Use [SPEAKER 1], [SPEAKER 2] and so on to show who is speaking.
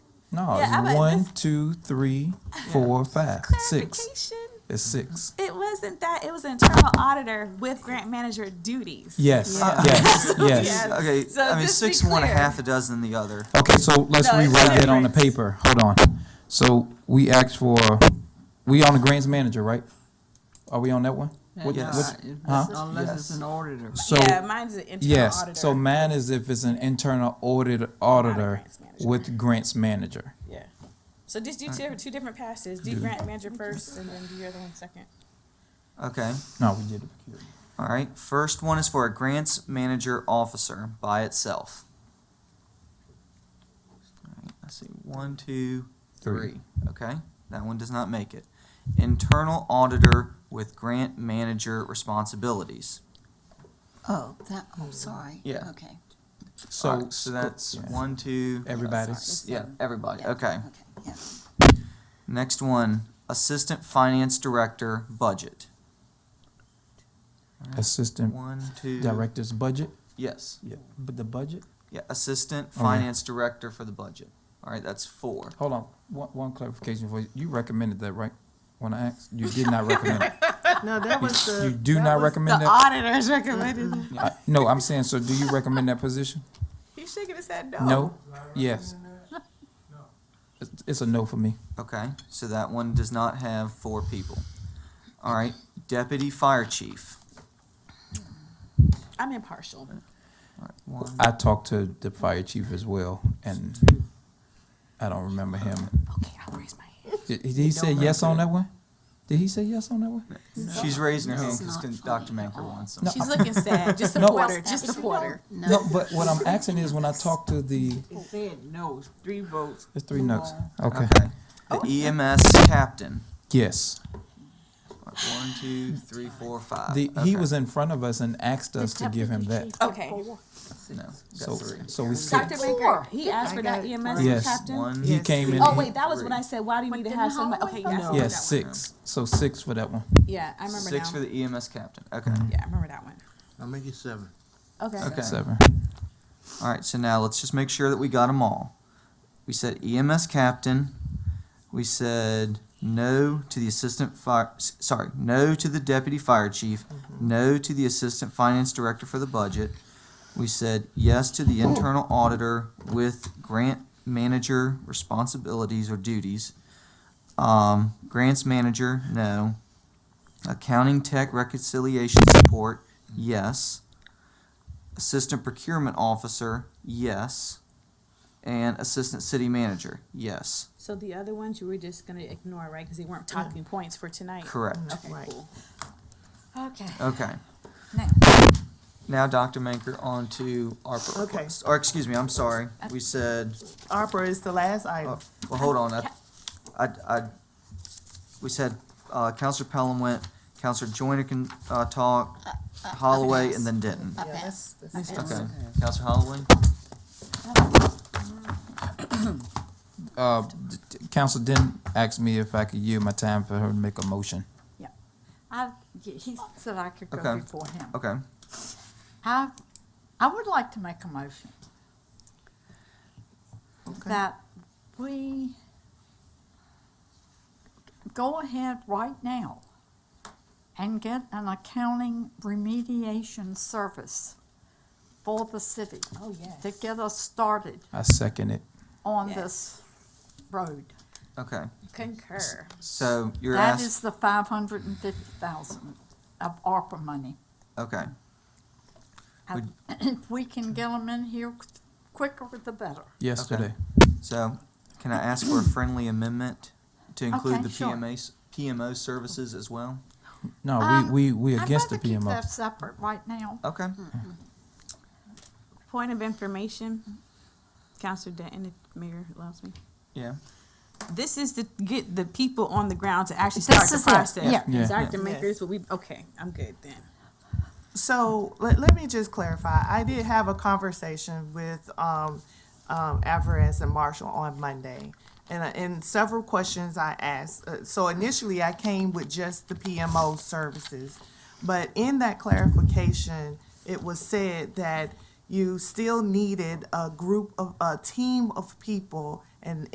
[SPEAKER 1] No,
[SPEAKER 2] Yeah, I
[SPEAKER 1] it's
[SPEAKER 2] bet
[SPEAKER 1] one,
[SPEAKER 2] this-
[SPEAKER 1] two, three, four, five, six.
[SPEAKER 2] Clarification.
[SPEAKER 1] It's six.
[SPEAKER 2] It wasn't that. It was internal auditor with grant manager duties.
[SPEAKER 1] Yes,
[SPEAKER 3] Yeah.
[SPEAKER 1] yes, yes.
[SPEAKER 2] Yeah.
[SPEAKER 3] Okay,
[SPEAKER 2] So
[SPEAKER 3] I mean,
[SPEAKER 2] just be
[SPEAKER 3] six, one, a
[SPEAKER 2] clear.
[SPEAKER 3] half a dozen the other.
[SPEAKER 1] Okay, so let's
[SPEAKER 2] No, it's
[SPEAKER 1] rewrite that on the
[SPEAKER 2] different.
[SPEAKER 1] paper. Hold on. So we asked for, we on the grants manager, right? Are we on that one? What-
[SPEAKER 3] Yes.
[SPEAKER 1] what's- huh?
[SPEAKER 4] Unless it's an auditor.
[SPEAKER 1] So,
[SPEAKER 2] yeah, mine's an internal
[SPEAKER 1] yes,
[SPEAKER 2] auditor.
[SPEAKER 1] so mine is if it's an internal audit, auditor
[SPEAKER 2] grants manager.
[SPEAKER 1] with grants manager.
[SPEAKER 2] yeah. So just do two, two different passes. Do grant manager first, and then do your other one second.
[SPEAKER 3] Okay,
[SPEAKER 1] No, we did it.
[SPEAKER 3] all right. First one is for a grants manager officer by itself. All right, I see one, two,
[SPEAKER 1] Three.
[SPEAKER 3] three. Okay, that one does not make it. Internal auditor with grant manager responsibilities.
[SPEAKER 4] Oh, that, oh, sorry.
[SPEAKER 3] Yeah.
[SPEAKER 4] Okay.
[SPEAKER 3] All
[SPEAKER 1] So,
[SPEAKER 3] right, so that's
[SPEAKER 1] yeah.
[SPEAKER 3] one, two.
[SPEAKER 1] Everybody's.
[SPEAKER 3] Yeah, everybody.
[SPEAKER 4] Yeah,
[SPEAKER 3] Okay.
[SPEAKER 4] Okay, yeah.
[SPEAKER 3] Next one, assistant finance director budget.
[SPEAKER 1] Assistant
[SPEAKER 3] One, two.
[SPEAKER 1] director's budget.
[SPEAKER 3] Yes.
[SPEAKER 1] Yeah. But the budget?
[SPEAKER 3] Yeah, assistant
[SPEAKER 1] All right.
[SPEAKER 3] finance director for the budget. All right, that's four.
[SPEAKER 1] Hold on. One, one clarification for you. You recommended that, right? When I asked, you did not recommend it.
[SPEAKER 4] No, that was
[SPEAKER 1] You do not recommend
[SPEAKER 2] the
[SPEAKER 1] that?
[SPEAKER 2] auditors recommended. it.
[SPEAKER 1] I- No, I'm saying, so do you recommend that position?
[SPEAKER 2] He should have said no.
[SPEAKER 1] No? Yes? It's- It's a no for me.
[SPEAKER 3] Okay, so that one does not have four people. All right, deputy fire chief.
[SPEAKER 2] I'm impartial.
[SPEAKER 3] All right, one,
[SPEAKER 1] I talked to the fire chief as well, and I don't remember him.
[SPEAKER 2] Okay, I'll raise my hand.
[SPEAKER 1] Did did he say yes on that one? Did he say yes on that one?
[SPEAKER 3] she's raising her hand
[SPEAKER 4] That's
[SPEAKER 3] because
[SPEAKER 4] not funny
[SPEAKER 3] Dr. Manker wants them.
[SPEAKER 1] No.
[SPEAKER 2] She's looking sad. Just
[SPEAKER 1] No.
[SPEAKER 2] support her. Just support her.
[SPEAKER 1] No, but what I'm asking is when I talked to the,
[SPEAKER 4] It said no, three votes.
[SPEAKER 1] it's three no's. Okay.
[SPEAKER 3] Okay,
[SPEAKER 2] Oh.
[SPEAKER 3] the EMS captain.
[SPEAKER 1] Yes.
[SPEAKER 3] All right, One, two, three, four, five.
[SPEAKER 1] The, he
[SPEAKER 3] Oh, Okay,
[SPEAKER 1] was in front of us and asked us to give him that.
[SPEAKER 2] Okay.
[SPEAKER 3] No,
[SPEAKER 1] So,
[SPEAKER 3] got three.
[SPEAKER 1] so we
[SPEAKER 2] Dr.
[SPEAKER 1] six.
[SPEAKER 2] Baker, he asked for that EMS
[SPEAKER 1] Yes.
[SPEAKER 2] captain.
[SPEAKER 3] One.
[SPEAKER 1] He came in.
[SPEAKER 2] Oh wait, that was when I said, why do you need to
[SPEAKER 4] then
[SPEAKER 2] have
[SPEAKER 4] how
[SPEAKER 2] somebody?
[SPEAKER 4] am I
[SPEAKER 2] Okay,
[SPEAKER 4] gonna
[SPEAKER 2] yes,
[SPEAKER 3] Oh,
[SPEAKER 4] know?
[SPEAKER 1] Yes, six. So six for that one.
[SPEAKER 2] Yeah, I remember
[SPEAKER 3] Six
[SPEAKER 2] now.
[SPEAKER 3] for the EMS captain.
[SPEAKER 1] Mm-hmm.
[SPEAKER 3] Okay.
[SPEAKER 2] yeah, I remember that one.
[SPEAKER 5] I'll make it seven.
[SPEAKER 2] Okay.
[SPEAKER 3] Okay.
[SPEAKER 1] Seven.
[SPEAKER 3] All right, so now let's just make sure that we got them all. We said EMS captain. We said no to the assistant fire, s- sorry, no to the deputy fire chief, no to the assistant finance director for the budget. We said yes to the internal auditor with grant manager responsibilities or duties. Um, grants manager, no. Accounting tech reconciliation support, yes. Assistant Procurement Officer, yes. And Assistant City Manager, yes.
[SPEAKER 2] So the other ones you were just gonna ignore, right? Because they weren't talking points for tonight.
[SPEAKER 3] Correct.
[SPEAKER 2] Okay, cool.
[SPEAKER 4] Okay.
[SPEAKER 3] Okay. Now, Dr. Manker, on to ARPA
[SPEAKER 6] Okay.
[SPEAKER 3] requests. Or, excuse me, I'm sorry. We said,
[SPEAKER 6] Opera is the last item.
[SPEAKER 3] oh, well, hold on. I, I, I- we said, uh, Counselor Pelham went, Counselor Joyner can, uh, talk, Holloway, and then Denton.
[SPEAKER 4] I pass.
[SPEAKER 3] Okay. Counselor Holloway?
[SPEAKER 1] Uh, Council didn't ask me if I could yield my time for her to make a motion.
[SPEAKER 7] I, yeah, he said I could go
[SPEAKER 3] Okay.
[SPEAKER 7] before him.
[SPEAKER 3] Okay.
[SPEAKER 7] I, I would like to make a motion that we go ahead right now and get an accounting remediation service for the city
[SPEAKER 2] Oh, yes.
[SPEAKER 7] to get us started
[SPEAKER 1] I second it.
[SPEAKER 7] on
[SPEAKER 2] Yes.
[SPEAKER 7] this road.
[SPEAKER 3] Okay.
[SPEAKER 2] Concur.
[SPEAKER 3] So you're
[SPEAKER 7] That
[SPEAKER 3] asked,
[SPEAKER 7] is the five hundred and fifty thousand of ARPA money.
[SPEAKER 3] okay.
[SPEAKER 7] And If we can get them in here quicker, the better.
[SPEAKER 1] Yesterday.
[SPEAKER 3] So, can I ask for a friendly amendment to include
[SPEAKER 7] Okay,
[SPEAKER 3] the
[SPEAKER 7] sure.
[SPEAKER 3] PMAs, PMO services as well?
[SPEAKER 1] No,
[SPEAKER 7] Um,
[SPEAKER 1] we, we, we against the
[SPEAKER 7] I'd rather keep
[SPEAKER 1] PMO.
[SPEAKER 7] that separate right now.
[SPEAKER 3] Okay,
[SPEAKER 7] Mm.
[SPEAKER 2] Point of information, Counselor Denton, if Mayor allows me.
[SPEAKER 3] yeah,
[SPEAKER 2] This is to get the people on the ground to actually
[SPEAKER 7] This
[SPEAKER 2] start the
[SPEAKER 7] is it,
[SPEAKER 2] process.
[SPEAKER 7] yeah.
[SPEAKER 1] Yeah.
[SPEAKER 2] Dr.
[SPEAKER 6] Yeah.
[SPEAKER 2] Makers, will we, okay, I'm good then.
[SPEAKER 6] So let, let me just clarify. I did have a conversation with um, um, Alvarez and Marshall on Monday. And, I- and several questions I asked. Uh, so initially, I came with just the PMO services. But in that clarification, it was said that you still needed a group of a team of people and